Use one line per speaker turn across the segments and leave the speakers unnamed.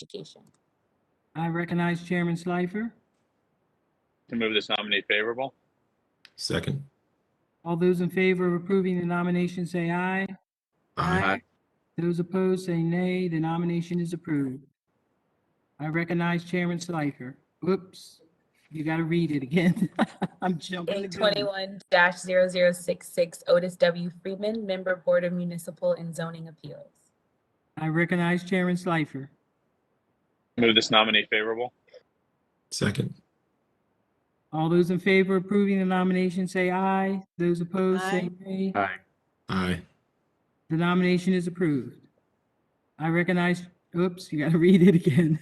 Education.
I recognize Chairman Schleifer.
To move this nominee favorable?
Second.
All those in favor of approving the nomination say aye. Those opposed say nay. The nomination is approved. I recognize Chairman Schleifer. Whoops, you got to read it again. I'm jumping the gun.
821-0066 Otis W. Freeman, Member Board of Municipal and Zoning Appeals.
I recognize Chairman Schleifer.
Move this nominee favorable?
Second.
All those in favor of approving the nomination say aye. Those opposed say nay.
Aye.
Aye.
The nomination is approved. I recognize, oops, you got to read it again.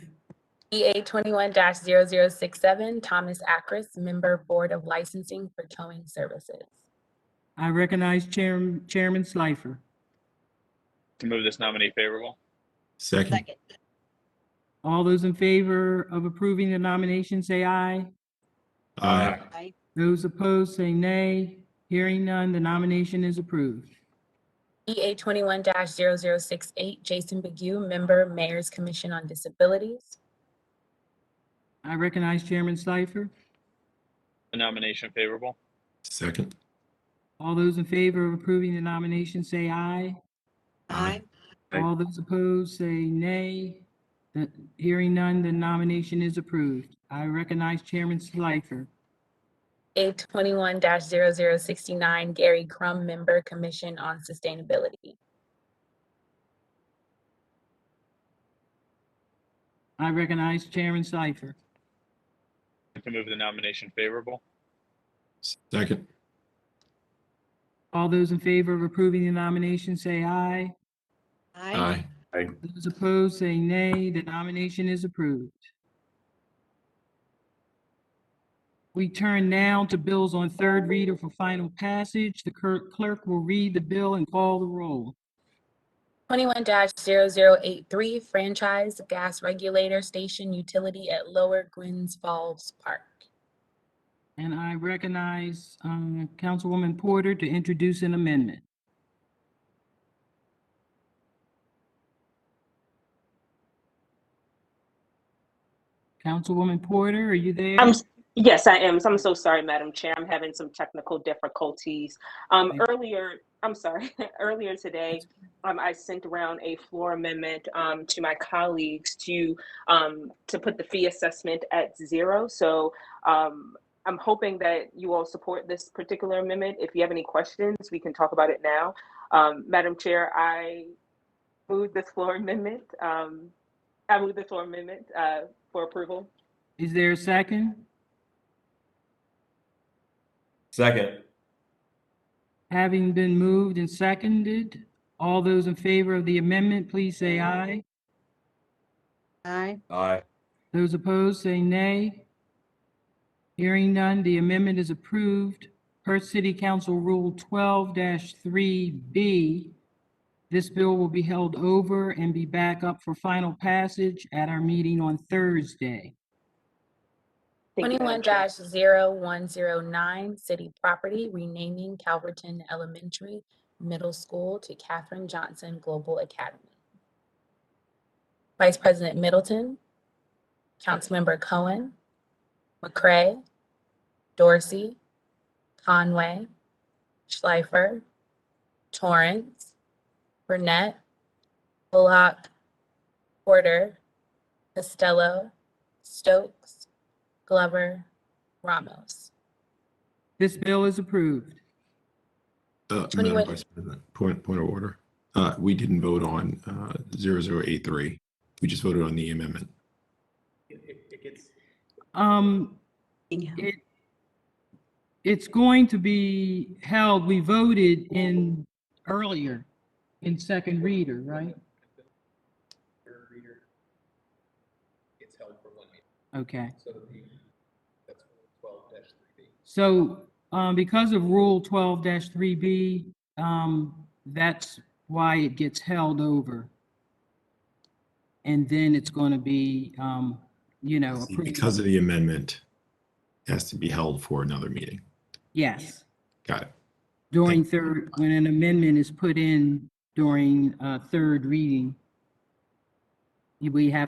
EA 21-0067 Thomas Akris, Member Board of Licensing for Towing Services.
I recognize Chairm- Chairman Schleifer.
To move this nominee favorable?
Second.
Second.
All those in favor of approving the nomination, say aye.
Aye.
Aye.
Those opposed, say nay. Hearing none, the nomination is approved.
EA 21-0068 Jason Begue, Member Mayor's Commission on Disabilities.
I recognize Chairman Schleifer.
The nomination favorable?
Second.
All those in favor of approving the nomination, say aye.
Aye.
Aye.
All those opposed, say nay. The- Hearing none, the nomination is approved. I recognize Chairman Schleifer.
EA 21-0069 Gary Crum, Member Commission on Sustainability.
I recognize Chairman Schleifer.
To move the nomination favorable?
Second.
All those in favor of approving the nomination, say aye.
Aye.
Those opposed, say nay. The nomination is approved. We turn now to bills on third reader for final passage. The cur- clerk will read the bill and call the roll.
21-0083 Franchise Gas Regulator Station Utility at Lower Gwynns Falls Park.
And I recognize um, Councilwoman Porter to introduce an amendment. Councilwoman Porter, are you there?
I'm, s- yes, I am. So I'm so sorry, Madam Chair. I'm having some technical difficulties. Um,
Thank
earlier, I'm sorry, earlier today, um, I sent around a floor amendment, um, to my colleagues to, um, to put the fee assessment at zero. So, um, I'm hoping that you all support this particular amendment. If you have any questions, we can talk about it now. Um, Madam Chair, I move this floor amendment, um, I move the floor amendment, uh, for approval.
Is there a second?
Second.
Having been moved and seconded, all those in favor of the amendment, please say aye.
Aye.
Aye.
Those opposed, say nay. Hearing none, the amendment is approved per City Council Rule 12-3B. This bill will be held over and be back up for final passage at our meeting on Thursday.
Thank you, Madam Chair.
21-0109 City Property Renaming Calverton Elementary Middle School to Katherine Johnson Global Academy. Vice President Middleton, Councilmember Cohen, McCray, Dorsey, Conway, Schleifer, Torrance, Burnett, Bullock, Porter, Costello, Stokes, Glover, Ramos.
This bill is approved.
Uh, Madam
21.
Vice President, Point, point of order. Uh, we didn't vote on, uh, zero zero eight three. We just voted on the amendment.
Um, It, it's going to be held, we voted in earlier, in second reader, right? Okay. So, um, because of Rule twelve three B, um, that's why it gets held over. And then it's gonna be, um, you know. approved.
Because of the amendment, it has to be held for another meeting.
Yes.
Got it.
during third, when an amendment is put in during uh, third reading, we have